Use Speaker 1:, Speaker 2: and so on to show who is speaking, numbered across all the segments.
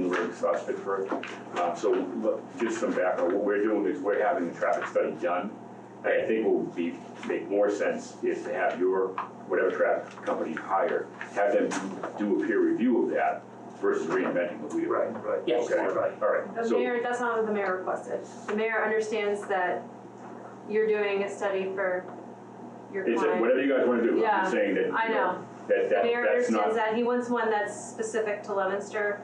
Speaker 1: towards uh, Pittsburgh. Uh, So look, just some background, what we're doing is we're having the traffic study done. And I think what would be, make more sense is to have your, whatever traffic company you hire, have them do do a peer review of that versus reinventing the wheel.
Speaker 2: Right, right.
Speaker 3: Yes.
Speaker 1: Okay, all
Speaker 2: Right.
Speaker 1: right.
Speaker 4: The
Speaker 1: So,
Speaker 4: mayor, that's not what the mayor requested. The mayor understands that you're doing a study for your
Speaker 1: it's,
Speaker 4: client.
Speaker 1: whatever you guys want to do, I'm
Speaker 4: Yeah,
Speaker 1: just saying that, you
Speaker 4: I
Speaker 1: know,
Speaker 4: know.
Speaker 1: that,
Speaker 4: The
Speaker 1: that,
Speaker 4: mayor
Speaker 1: that's
Speaker 4: understands
Speaker 1: not,
Speaker 4: that. He wants one that's specific to Leominster,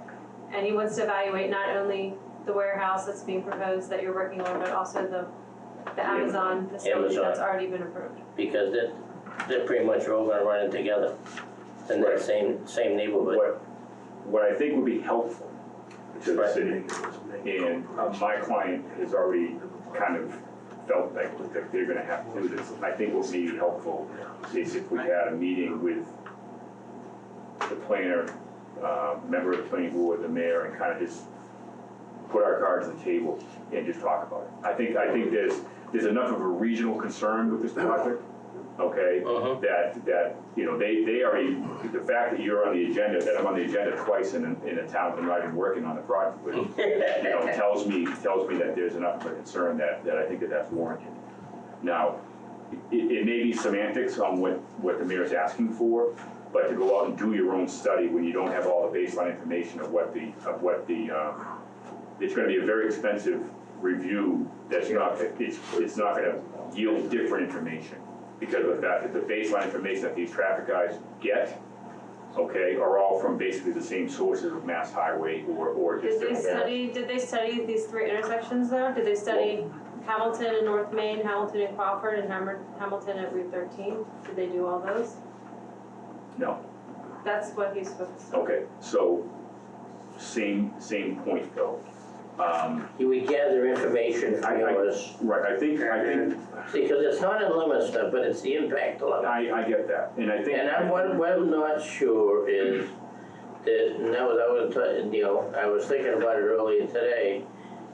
Speaker 4: and he wants to evaluate not only the warehouse that's being proposed that you're working on, but also the, the
Speaker 1: Yeah.
Speaker 4: Amazon facility
Speaker 3: Amazon.
Speaker 4: that's already been approved.
Speaker 3: because they're, they're pretty much all gonna run in together in
Speaker 1: Right.
Speaker 3: that same, same neighborhood.
Speaker 1: what, what I think would be helpful to the
Speaker 3: Right.
Speaker 1: city, and uh, my client has already kind of felt like that they're gonna have to do this. I think what would be helpful is if we had a meeting with the planner, uh, member of the planning board, the mayor, and kind of just put our cards on the table and just talk about it. I think, I think there's, there's enough of a regional concern with this project, okay?
Speaker 3: Mhm.
Speaker 1: That, that, you know, they, they already, the fact that you're on the agenda, that I'm on the agenda twice in, a- in a town that I'm not even working on the project with, you know, tells me, tells me that there's enough of a concern that, that I think that that's warranted. Now, it, it may be semantics on what, what the mayor's asking for, but to go out and do your own study when you don't have all the baseline information of what the, of what the, um, it's gonna be a very expensive review that's not, it's, it's not gonna yield different information. Because of the fact that the baseline information that these traffic guys get, okay, are all from basically the same sources of Mass Highway or, or just
Speaker 4: Did they
Speaker 1: different.
Speaker 4: study, did they study these three intersections though? Did they study Hamilton and North Main, Hamilton and Crawford, and Hammer- Hamilton at Route thirteen? Did they do all those?
Speaker 1: No,
Speaker 4: That's what he's focused on.
Speaker 1: okay, so, same, same point though. Um,
Speaker 3: You would gather information from
Speaker 1: I- I-
Speaker 3: yours,
Speaker 1: right, I think, I think,
Speaker 3: because it's not in Leominster, but it's the impact of Leominster.
Speaker 1: I, I get that, and I think.
Speaker 3: And I'm, what, what I'm not sure is that, and that was, I was, t- you know, I was thinking about it earlier today,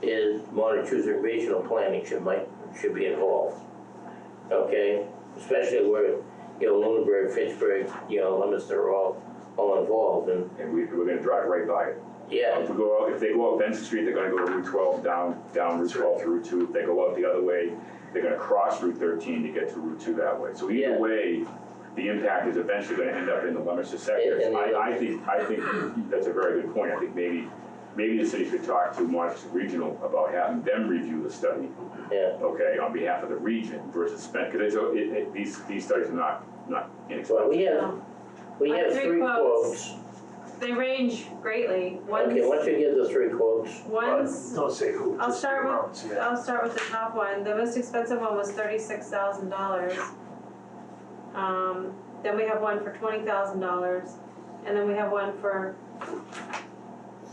Speaker 3: is Montezuma Regional Planning should might, should be involved. Okay, especially where, you know, Lunenburg, Fitchburg, you know, Leominster are all, all involved and,
Speaker 1: And we, we're gonna drive right by it.
Speaker 3: yeah,
Speaker 1: If we go out, if they go up Benson Street, they're gonna go to Route twelve, down, down Route twelve to Route two. If they go out the other way, they're gonna cross Route thirteen to get to Route two that way. So either
Speaker 3: Yeah.
Speaker 1: way, the impact is eventually gonna end up in the Leominster sector.
Speaker 3: In- in the-
Speaker 1: I, I think, I think that's a very good point. I think maybe, maybe the city should talk to Montezuma Regional about having them review the study,
Speaker 3: yeah.
Speaker 1: okay, on behalf of the region versus spend, because it's, it, it, these, these studies are not, not
Speaker 3: Well,
Speaker 1: inexpensive.
Speaker 3: we have,
Speaker 4: No.
Speaker 3: we
Speaker 4: I have
Speaker 3: have
Speaker 4: three
Speaker 3: three
Speaker 4: quotes.
Speaker 3: quotes.
Speaker 4: Um, They range greatly. One's,
Speaker 3: Okay, why don't you give the three quotes?
Speaker 4: one's,
Speaker 2: Don't say who,
Speaker 4: I'll
Speaker 2: just the
Speaker 4: start with-
Speaker 2: amounts, yeah.
Speaker 4: I'll start with the top one. The most expensive one was thirty-six thousand dollars. Um, then we have one for twenty thousand dollars, and then we have one for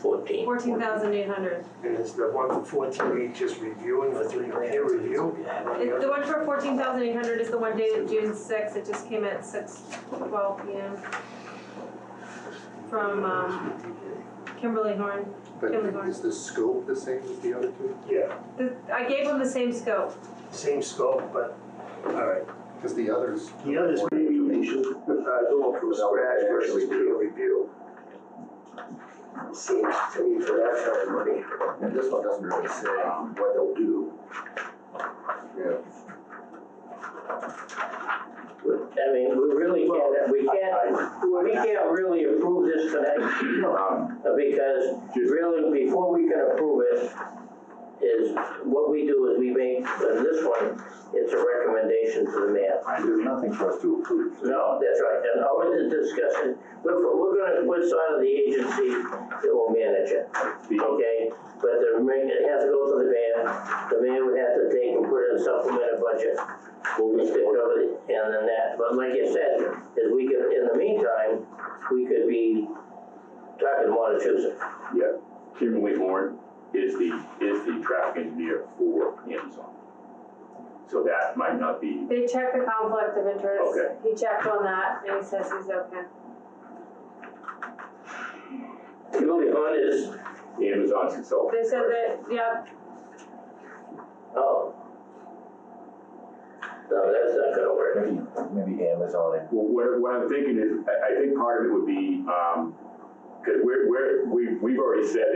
Speaker 3: Fourteen.
Speaker 4: fourteen thousand eight hundred.
Speaker 2: And it's the one for fourteen, just reviewing, the three peer review.
Speaker 4: It, the one for fourteen thousand eight hundred is the one dated June sixth, it just came at six twelve P M. From, um, Kimberly Horn,
Speaker 5: But
Speaker 4: Can we go-
Speaker 5: is the scope the same as the other two?
Speaker 2: Yeah,
Speaker 4: the, I gave them the same scope,
Speaker 2: same scope, but, all right.
Speaker 5: Because the others.
Speaker 2: The others, maybe we should, uh, go from scratch versus peer review. Seems to me for that kind of money.
Speaker 5: And this one doesn't really say what they'll do. Yeah,
Speaker 3: I mean, we really can't, we can't, we can't really approve this tonight,
Speaker 1: Um,
Speaker 3: uh, because really, before we can approve it, is, what we do is we make, and this one, it's a recommendation to the mayor.
Speaker 5: there's nothing for us to approve.
Speaker 3: No, that's right, and all of the discussion, we're, we're gonna, we're sort of the agency that will manage it.
Speaker 1: the- oh,
Speaker 3: Okay, but the, remain- it has to go to the mayor, the mayor would have to take and put in a supplemental budget. We stick over the, and then that, but like you said, is we could, in the meantime, we could be talking to Montezuma.
Speaker 1: Yeah, Kimberly Horn is the, is the traffic engineer for Amazon. So that might not be,
Speaker 4: they checked the conflict of interest,
Speaker 1: Okay.
Speaker 4: he checked on that, and he says he's okay.
Speaker 3: Julie Hunt is,
Speaker 1: Amazon's consultant.
Speaker 4: They said that, yeah,
Speaker 3: oh. No, that's not gonna work.
Speaker 6: Maybe, maybe Amazon and
Speaker 1: Well, what, what I'm thinking is, I, I think part of it would be, um, cause we're, we're, we, we've already said